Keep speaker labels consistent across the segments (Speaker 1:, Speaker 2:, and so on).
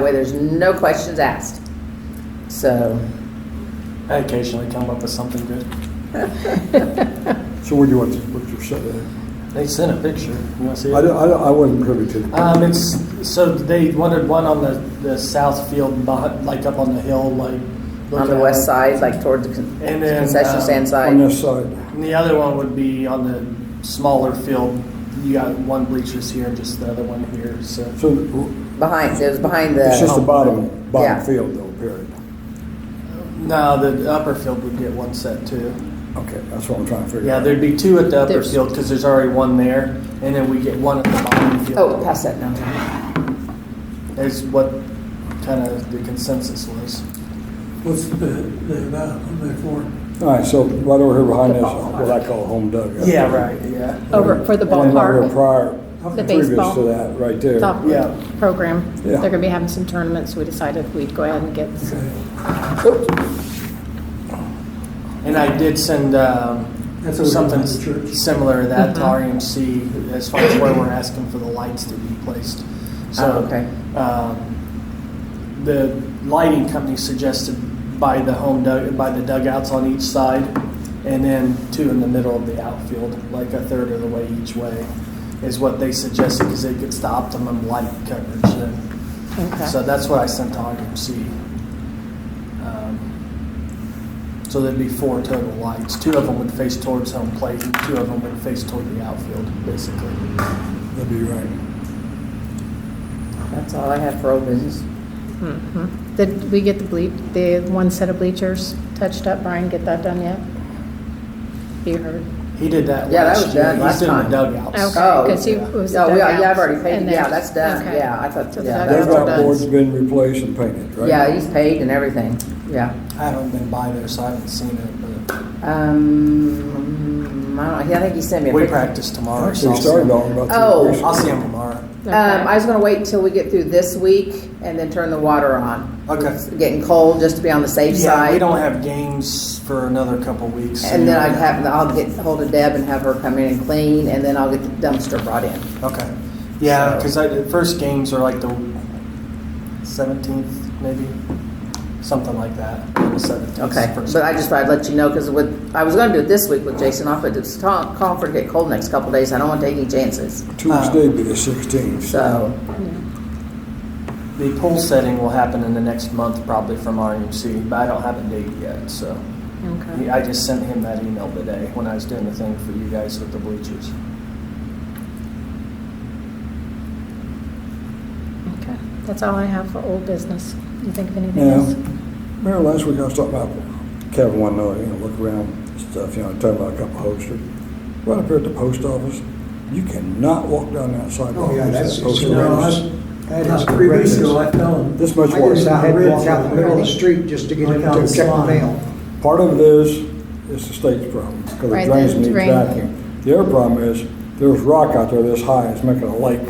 Speaker 1: way there's no questions asked. So,
Speaker 2: I occasionally come up with something good.
Speaker 3: So where do you want, what's your, set at?
Speaker 2: They sent a picture. You want to see it?
Speaker 3: I don't, I don't, I wasn't privy
Speaker 1: Uh,
Speaker 2: Um,
Speaker 3: to.
Speaker 2: it's so they wanted one on the, the south field, behind, like up on the hill, like
Speaker 1: on the
Speaker 2: looking
Speaker 1: west
Speaker 2: at
Speaker 1: side, like toward the con-
Speaker 2: And then,
Speaker 1: concession
Speaker 2: um,
Speaker 1: stand
Speaker 3: On
Speaker 1: side.
Speaker 3: this side,
Speaker 2: it. And the other one would be on the smaller field. You got one bleachers here and just the other one here. So
Speaker 3: so
Speaker 1: Behind, it was behind the.
Speaker 3: it's just the bottom,
Speaker 1: Yeah.
Speaker 3: bottom field though, period.
Speaker 2: no, the upper field would get one set too.
Speaker 3: Okay, that's what I'm trying to figure
Speaker 2: Yeah,
Speaker 3: out.
Speaker 2: there'd be two at the upper
Speaker 1: There's-
Speaker 2: field because there's already one there, and then we get one at the bottom field.
Speaker 1: Oh, pass that now.
Speaker 2: is what kind of the consensus was.
Speaker 4: What's the, the amount on there for?
Speaker 3: All right, so right over here behind this, what I call home dugout.
Speaker 2: right. Yeah,
Speaker 5: Over for the
Speaker 3: And then right here
Speaker 5: ballpark
Speaker 3: prior,
Speaker 5: The
Speaker 3: previous
Speaker 5: baseball.
Speaker 3: to that, right there.
Speaker 5: top
Speaker 2: yeah.
Speaker 5: program.
Speaker 3: Yeah.
Speaker 5: They're going to be having some tournaments. We decided we'd go ahead and get some.
Speaker 2: And I did send um,
Speaker 4: That's over
Speaker 2: something
Speaker 4: behind the church.
Speaker 2: similar to that
Speaker 1: Mm-hmm.
Speaker 2: to RMC as far as where we're asking for the lights to be placed. So,
Speaker 1: Oh, okay.
Speaker 2: um, the lighting company suggested by the home dug- by the dugouts on each side, and then two in the middle of the outfield, like a third of the way each way, is what they suggested because it gets the optimum light coverage. Then.
Speaker 5: Okay.
Speaker 2: So that's what I sent to RMC. Um, so there'd be four total lights. Two of them would face towards home plate, and two of them would face toward the outfield, basically.
Speaker 3: That'd be right.
Speaker 1: That's all I have for old business.
Speaker 5: Mhm. Did we get the ble, the one set of bleachers touched up? Brian, get that done yet? You heard?
Speaker 2: He did that
Speaker 1: Yeah, that
Speaker 2: last
Speaker 1: was
Speaker 2: year.
Speaker 1: done
Speaker 2: He's
Speaker 1: last
Speaker 2: doing
Speaker 1: time.
Speaker 2: the dugouts.
Speaker 5: Okay,
Speaker 1: Oh,
Speaker 5: because he
Speaker 2: yeah.
Speaker 5: was.
Speaker 1: No, we- yeah,
Speaker 5: dugouts
Speaker 1: I've already paid-
Speaker 5: and then-
Speaker 1: yeah, that's done.
Speaker 5: okay.
Speaker 1: Yeah, I thought-
Speaker 5: So the
Speaker 1: yeah,
Speaker 5: dugouts
Speaker 1: that's
Speaker 5: are
Speaker 3: Dugout
Speaker 5: done.
Speaker 3: board's been replaced and painted, right?
Speaker 1: Yeah, he's paid and everything, yeah.
Speaker 2: I haven't been by there, so I haven't seen it, but
Speaker 1: Um, I don't, he- I think he sent me a
Speaker 2: we
Speaker 1: picture.
Speaker 2: practice tomorrow. so
Speaker 3: Actually,
Speaker 2: I'll see
Speaker 3: started
Speaker 2: him.
Speaker 3: on about. three
Speaker 1: Oh,
Speaker 3: weeks
Speaker 2: I'll see
Speaker 3: ago.
Speaker 2: him tomorrow.
Speaker 5: Okay.
Speaker 1: Um, I was gonna wait until we get through this week and then turn the water on.
Speaker 2: Okay.
Speaker 1: It's Getting cold, just to be on the safe
Speaker 2: Yeah,
Speaker 1: side.
Speaker 2: we don't have games for another couple weeks.
Speaker 1: And then I'd have, I'll get hold of Deb and have her come in and clean, and then I'll get the dumpster brought in.
Speaker 2: Okay. Yeah,
Speaker 1: So-
Speaker 2: because the first games are like the 17th, maybe? Something like that. The 17th.
Speaker 1: Okay,
Speaker 2: first
Speaker 1: but I
Speaker 2: game.
Speaker 1: just thought I'd let you know, because with, I was gonna do it this week with Jason off, but it's con- Concord get cold next couple days, I don't wanna take any chances,
Speaker 3: Tuesday be the sixteenth.
Speaker 1: Uh, so.
Speaker 2: The pool setting will happen in the next month, probably from RMC, but I don't have a date yet, so.
Speaker 5: Okay.
Speaker 2: I just sent him that email today when I was doing the thing for you guys with the bleachers.
Speaker 5: Okay. That's all I have for old business. You think of anything
Speaker 3: Now,
Speaker 5: else?
Speaker 3: remember last week I was talking about Kevin wanting to, know, you know, look around stuff, you know, talking about a couple of holsters. Right up here at the post office, you cannot walk down that sidewalk.
Speaker 6: Oh, yeah,
Speaker 3: without
Speaker 6: that's-
Speaker 3: that post
Speaker 6: you know,
Speaker 3: office.
Speaker 6: that's-
Speaker 4: That
Speaker 6: About
Speaker 4: is
Speaker 6: three weeks ago, I
Speaker 4: horrendous.
Speaker 6: fell and.
Speaker 3: This much
Speaker 6: I
Speaker 3: worse.
Speaker 6: just
Speaker 3: I
Speaker 6: had to
Speaker 4: read
Speaker 6: walk out the middle of the street just to get
Speaker 4: Like
Speaker 6: in
Speaker 4: on
Speaker 6: to check the
Speaker 4: slime.
Speaker 1: Uh,
Speaker 6: mail.
Speaker 3: Part of this is the state's problem, because the
Speaker 5: Right,
Speaker 3: drains
Speaker 5: the
Speaker 3: need
Speaker 5: drain.
Speaker 3: vacuum. The other problem is, there's rock out there this high, it's making a lake.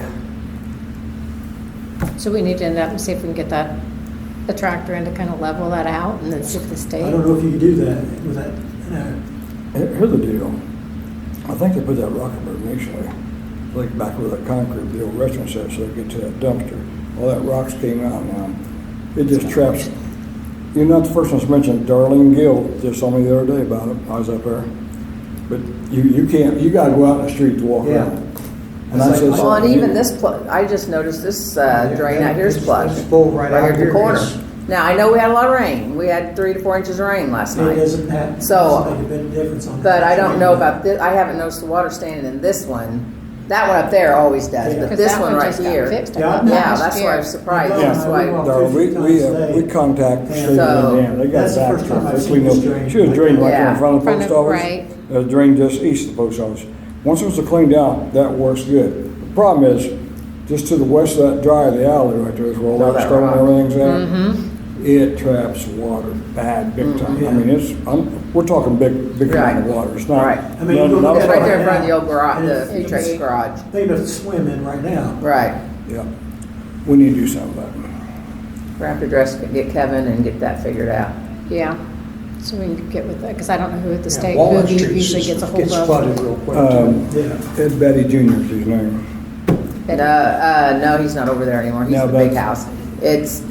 Speaker 5: So we need to end up and see if we can get that, the tractor in to kind of level that out and then see if the state.
Speaker 4: I don't know if you could do that with that, you know,
Speaker 3: Here- Here's the deal, I think they put that rock up there initially, like back where that concrete, the old restaurant set, so they get to that dumpster. All that rocks came out now, it just traps. You're not the first one that's mentioned, Darlene Gill just saw me the other day about it, I was up there. But you, you can't, you gotta go out in the street to walk
Speaker 6: Yeah.
Speaker 3: around. And I said,
Speaker 1: Well, and even this plug, I just noticed this uh, drain out here's
Speaker 6: It's-
Speaker 1: plugged.
Speaker 6: it's full right out
Speaker 1: at the
Speaker 6: here.
Speaker 1: corner.
Speaker 6: It's-
Speaker 1: Now, I know we had a lot of rain, we had three to four inches of rain last
Speaker 4: it
Speaker 1: night,
Speaker 4: doesn't have,
Speaker 1: So,
Speaker 4: doesn't make a bit of difference on.
Speaker 1: but I
Speaker 4: that.
Speaker 1: don't know about this, I haven't noticed the water standing in this one. That one up there always does,
Speaker 4: Yeah.
Speaker 1: but
Speaker 5: 'Cause
Speaker 1: this
Speaker 5: that
Speaker 1: one right
Speaker 5: just got
Speaker 1: here.
Speaker 5: fixed, I
Speaker 4: Yeah,
Speaker 5: thought,
Speaker 1: Yeah,
Speaker 5: last
Speaker 1: that's why I
Speaker 5: year.
Speaker 1: was surprised,
Speaker 3: Yeah.
Speaker 1: that's why,
Speaker 3: Darrell, we, we, uh, we contacted the state of
Speaker 1: So-
Speaker 3: Indiana, they got
Speaker 4: That's the
Speaker 3: back
Speaker 4: first
Speaker 3: to
Speaker 4: time I've
Speaker 3: us,
Speaker 4: seen
Speaker 3: we know,
Speaker 4: this drain.
Speaker 3: she was drained right there in
Speaker 1: Yeah.
Speaker 3: front of the
Speaker 5: Front
Speaker 3: post
Speaker 5: of-
Speaker 3: office.
Speaker 5: right.
Speaker 3: A drain just east of the post office. Once it was cleaned out, that works good. The Problem is, just to the west of that drive, the alley right there is where all
Speaker 1: All
Speaker 3: that
Speaker 1: that
Speaker 3: stone
Speaker 1: rock.
Speaker 3: and everything's at. It traps water bad, big time.
Speaker 4: Mm-hmm.
Speaker 3: I mean, it's, I'm, we're talking big, big amount of
Speaker 1: Right.
Speaker 3: water, it's
Speaker 1: Right.
Speaker 3: not.
Speaker 4: I mean, you
Speaker 3: not-
Speaker 4: look
Speaker 3: not-
Speaker 4: at
Speaker 1: it's
Speaker 4: it
Speaker 1: right there in front of the old garage,
Speaker 4: And
Speaker 1: the
Speaker 4: it's-
Speaker 1: Utrecht's garage,
Speaker 4: They must swim in right now.
Speaker 1: right.
Speaker 3: Yeah, we need to do something about it.
Speaker 1: We're gonna have to dress, get Kevin and get that figured out.
Speaker 5: Yeah, so we can get with that, because I don't know who at the
Speaker 6: Yeah,
Speaker 5: state, who
Speaker 6: Walnut Street
Speaker 5: usually gets a hold
Speaker 6: Gets
Speaker 5: of.
Speaker 6: flooded real quick.
Speaker 3: Um,
Speaker 4: Yeah.
Speaker 3: Ed Betty Junior's his name.
Speaker 1: No, uh, no, he's not over there anymore, he's
Speaker 3: No,
Speaker 1: in the big
Speaker 3: but-
Speaker 1: house. It's